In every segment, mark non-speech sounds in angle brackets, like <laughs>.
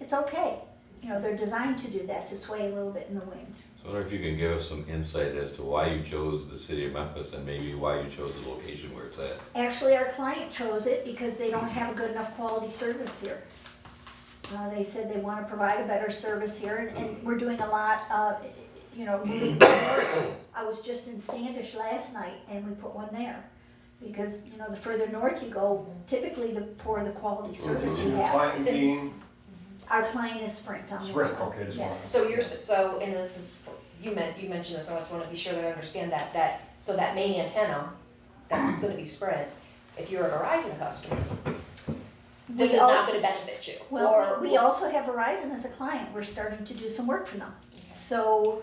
it's okay. You know, they're designed to do that, to sway a little bit in the wind. So I wonder if you can give us some insight as to why you chose the city of Memphis and maybe why you chose the location where it's at. Actually, our client chose it because they don't have a good enough quality service here. Uh, they said they wanna provide a better service here, and, and we're doing a lot of, you know, moving to work. I was just in Standish last night, and we put one there, because, you know, the further north you go, typically the poorer the quality service you Your have. client being, Our client is Sprint on this one. Sprint, okay, just Yes. wanted- So you're, s- so, and this is, you meant, you mentioned this, I just wanna be sure that I understand that, that, so that main antenna, that's gonna be spread, if you're a Verizon customer, this We is not also- gonna benefit you, Well, or. we we also have Verizon as a client, we're starting to do some work for them, so.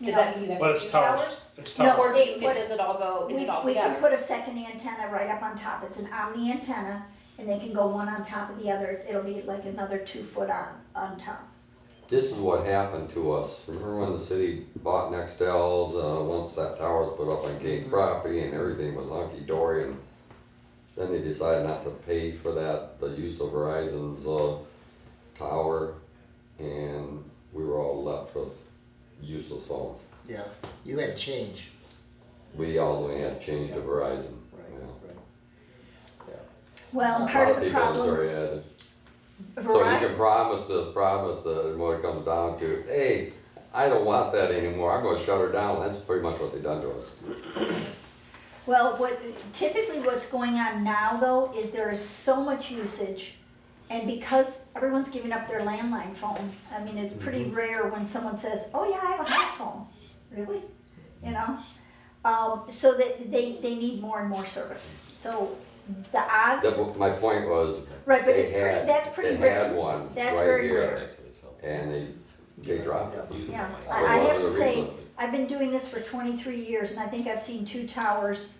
you Does know, that mean you have But two it's towers? towers, it's No, towers. Or do you, What- does it all go, is we- it all We can together? put a second antenna right up on top, it's an omni antenna, and they can go one on top of the other, it'll be like another two foot arm on top. This is what happened to us. Remember when the city bought Nextels, uh, once that tower was put up on King's property and everything was hunky dory and then they decided not to pay for that, the use of Verizon's, uh, tower and we were all left with useless phones. Yeah, you had change, We all had changed to Verizon, right, you know. right. Well, A part A of lot the people in problem, Missouri had it. So you can Verizon, promise this, promise that, and what it comes down to, hey, I don't want that anymore, I'm gonna shut her down, that's pretty much what they done to us. well, what, typically what's going on now though, is there is so much usage. And because everyone's giving up their landline phone, I mean, it's pretty Mm-hmm. rare when someone says, oh yeah, I have a house phone, really? You know? Um, so that they, they need more and more service, so the odds. That, wa- my point was, Right, but They it's pretty, had- that's pretty they rare. had one That's right very here. rare. and they, they dropped it. Yeah, For I, I have whatever to say, reason. I've been doing this for twenty-three years and I think I've seen two towers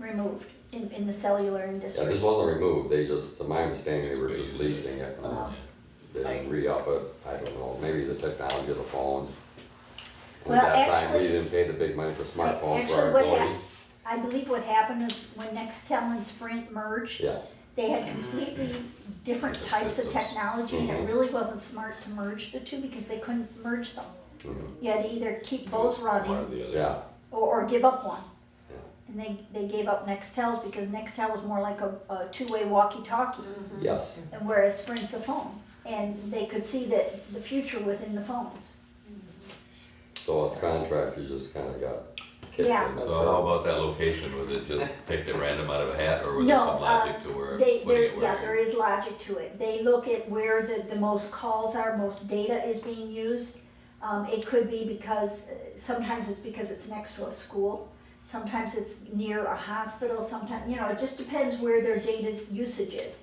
removed in, in the cellular Yeah, industry. this wasn't removed, they just, to my understanding, they were just leasing it, Uh, they didn't re-up it, I don't know, maybe the technology of the phones. And Well, at that time, we actually- didn't pay the big money for smartphones for Actually, our what happened, employees, I believe what happened is when Nextel and Sprint merged, yeah, they had completely different Different types of systems. technology and it Mhm. really wasn't smart to merge the two because they couldn't merge them. mhm, You had to either keep both running One or the other. yeah, or, or give up one. Yeah. And they, they gave up Nextels because Nextel was more like a, a two-way walkie-talkie, Mm-hmm. yes, and whereas Sprint's a phone. And they could see that the future was in the phones. so us contractors just kinda got kicked in. Yeah. So how about that location? Was it just picked at random out of a hat or was there No, uh, um, some logic to where, They, putting there, it yeah, there where? is logic to it. They look at where the, the most calls are, most data is being used. Um, it could be because, uh, sometimes it's because it's next to a school, sometimes it's near a hospital, sometimes, you know, it just depends where their data usage is.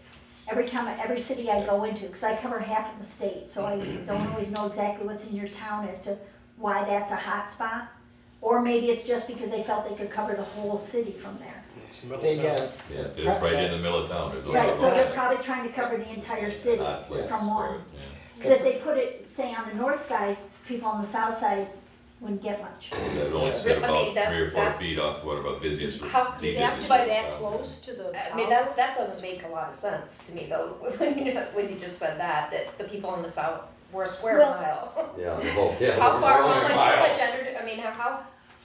Every time, I- every city I go into, because I cover half of the state, so I don't always know exactly what's in your town as to why that's a hot spot. Or maybe it's just because they felt they could cover the whole city from there. It's the middle They town. got, Yeah, it's right in the middle of town. There's no Right, so Uh, they're other- probably trying to cover the entire city Not place from Right, one. yeah. Because if they put it, say, on the north side, people on the south side wouldn't get much. It only Yeah. sit I mean, about that- three or four that's- feet off one of our busiest. How could the you have busiest to buy in that town. close to the I mean, that, that doesn't make a lot of sense to me though, <laughs> when you, when you just said that, that the people in the south were a square Well- mile. Yeah, the whole, yeah. How far, how we're much, only how miles. much energy, I mean, how, how,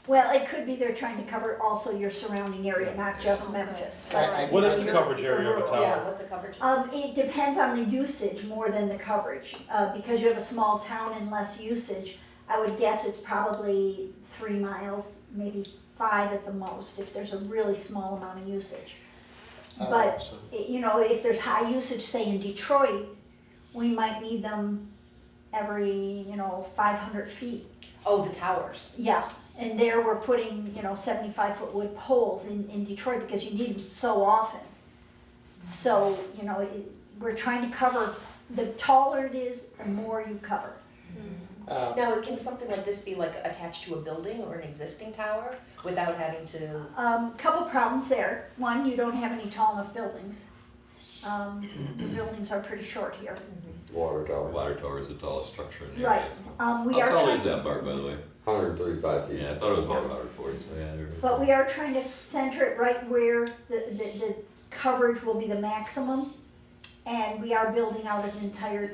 Well, it could be they're trying to cover also your surrounding area, not just Memphis. I, I. What is the I- coverage area of a yeah, tower? what's the coverage? Um, it depends on the usage more than the coverage, uh, because you have a small town and less usage. I would guess it's probably three miles, maybe five at the most, if there's a really small amount of usage. Uh, But, so- i- you know, if there's high usage, say in Detroit, we might need them every, you know, five hundred feet. Oh, the towers. Yeah, and there we're putting, you know, seventy-five foot wood poles in, in Detroit because you need them so often. So, you know, it, we're trying to cover, the taller it is, the more you cover. Uh, Now, can something like this be like attached to a building or an existing tower without having to? Um, couple problems there. One, you don't have any tall enough buildings. Um, the buildings are pretty short here. Water The tower, Water tower is the tallest structure in the area. Right, um, we How are tall is trying, that bar, by the way? hundred and thirty-five feet. Yeah, I thought it was about 140, so yeah. there- but we are trying to center it right where the, the, the coverage will be the maximum. And we are building out an entire